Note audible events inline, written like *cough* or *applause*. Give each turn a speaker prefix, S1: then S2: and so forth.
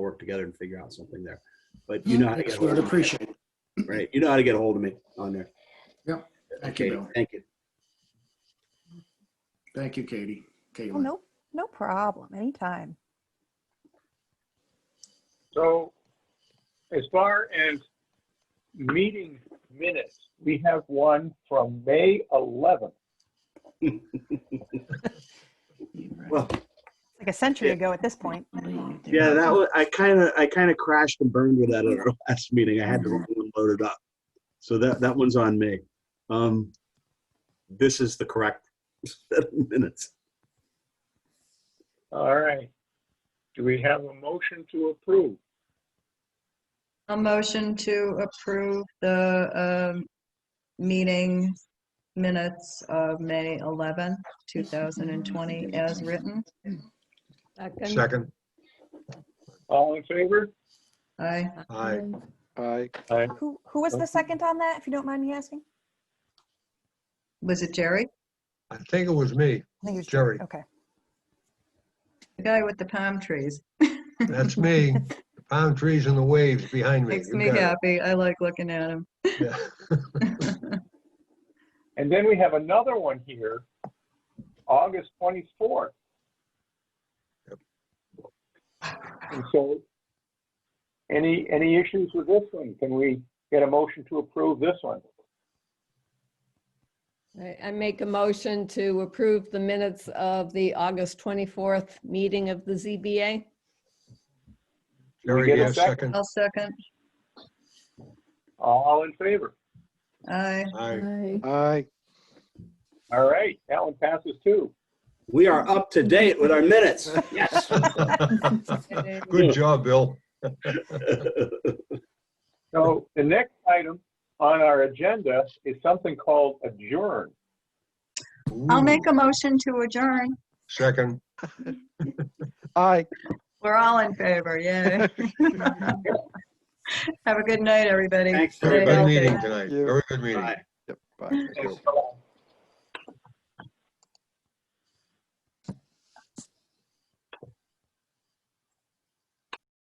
S1: work together and figure out something there. But you know how to get
S2: Thanks,
S1: a hold
S2: Would
S1: of me.
S2: appreciate it.
S1: Right, you know how to get a hold of me on there.
S2: Yep. Thank you,
S1: Okay,
S2: Bill.
S1: thank you.
S2: Thank you, Katie.
S3: Oh,
S2: Caitlin.
S3: no, no problem, anytime.
S4: So as far as meeting minutes, we have one from May 11th.
S1: Well,
S3: It's Like a century
S1: Yeah.
S3: ago at this *laughs* point.
S1: yeah, that was, I kind of, I kind of crashed and burned with that at our *laughs* last meeting. I had the wrong one loaded up. So that, that one's on me. Um, This is the correct *laughs* set of minutes.
S4: All right. Do we have a motion to approve?
S5: A motion to approve the um, meeting minutes of May 11, 2020 as written.
S6: Second,
S4: All in favor?
S5: Aye.
S6: aye.
S7: Aye.
S3: Who, who was the second on that, if you don't mind me asking?
S5: Was it Jerry?
S6: I think it was me,
S3: I think it was
S6: Jerry.
S3: Okay.
S5: The guy with the palm trees. *laughs*
S6: That's me. The palm trees and the waves behind me.
S5: Makes
S6: You
S5: me
S6: got it.
S5: happy. I like looking at him.
S6: Yeah.
S4: And then we have another one here, August 24th. And so, any, any issues with this one? Can we get a motion to approve this one?
S8: I I make a motion to approve the minutes of the August 24th meeting of the ZBA.
S6: Jerry,
S4: get a
S6: yeah,
S4: second?
S6: second,
S5: I'll second.
S4: All in favor?
S6: *laughs*
S5: Aye.
S6: aye.
S7: Aye.
S4: All right, that one passes too.
S1: We are up to date with our minutes. Yes.
S5: *laughs*
S6: *laughs* Good job, Bill.
S4: So the next item on our agenda is something called adjourn.
S5: I'll make a motion to adjourn.
S6: Second,
S7: Aye.
S5: We're all in favor.
S6: *laughs*
S5: Yay. *laughs* Have a good night, everybody.
S1: Thanks,
S5: Stay
S6: very good
S5: healthy.
S6: meeting tonight,
S7: You.
S6: very good meeting.
S1: Bye.
S7: Yep, Bye.
S4: And so